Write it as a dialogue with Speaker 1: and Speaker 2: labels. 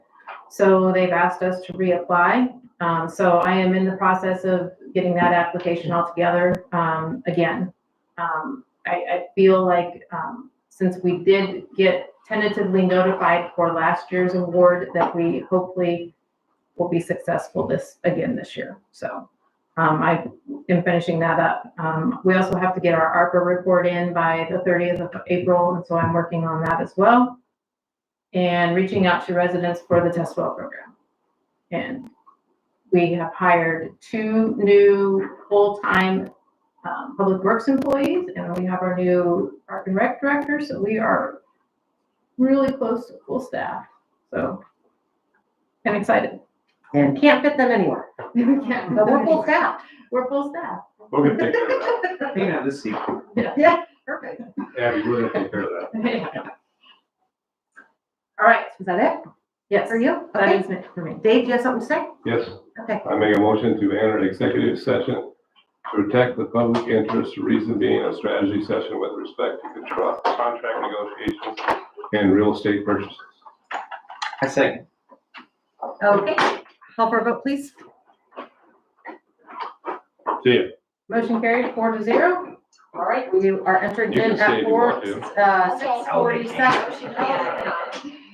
Speaker 1: So they've asked us to reapply. Um, so I am in the process of getting that application all together, um, again. Um, I, I feel like, um, since we did get tentatively notified for last year's award, that we hopefully will be successful this, again this year. So, um, I am finishing that up. Um, we also have to get our ARPA report in by the thirtieth of April, and so I'm working on that as well and reaching out to residents for the test well program. And we have hired two new full-time um, public works employees, and we have our new park and rec director, so we are really close to full staff. So I'm excited.
Speaker 2: And can't fit them anywhere.
Speaker 1: Mm-hmm.
Speaker 2: But we're full staff.
Speaker 1: We're full staff.
Speaker 3: We're gonna take care of that. Hang on, this seat.
Speaker 2: Yeah, perfect.
Speaker 3: Abby, we're gonna take care of that.
Speaker 1: All right,
Speaker 2: Is that it
Speaker 1: yes,
Speaker 2: for you?
Speaker 1: that
Speaker 2: Okay.
Speaker 1: is it for me.
Speaker 2: Dave, do you have something to say?
Speaker 3: Yes,
Speaker 2: Okay.
Speaker 3: I make a motion to enter executive session to protect the public interest, reason being a strategy session with respect to contra- contract negotiations and real estate purchases.
Speaker 4: I second.
Speaker 2: Okay. Call for a vote, please.
Speaker 3: See ya.
Speaker 1: Motion carried four to zero.
Speaker 2: All right, we are entered
Speaker 3: You
Speaker 2: in uh,
Speaker 3: can stay
Speaker 2: at
Speaker 3: if you want
Speaker 2: four,
Speaker 3: to.
Speaker 2: uh, six forty-seven.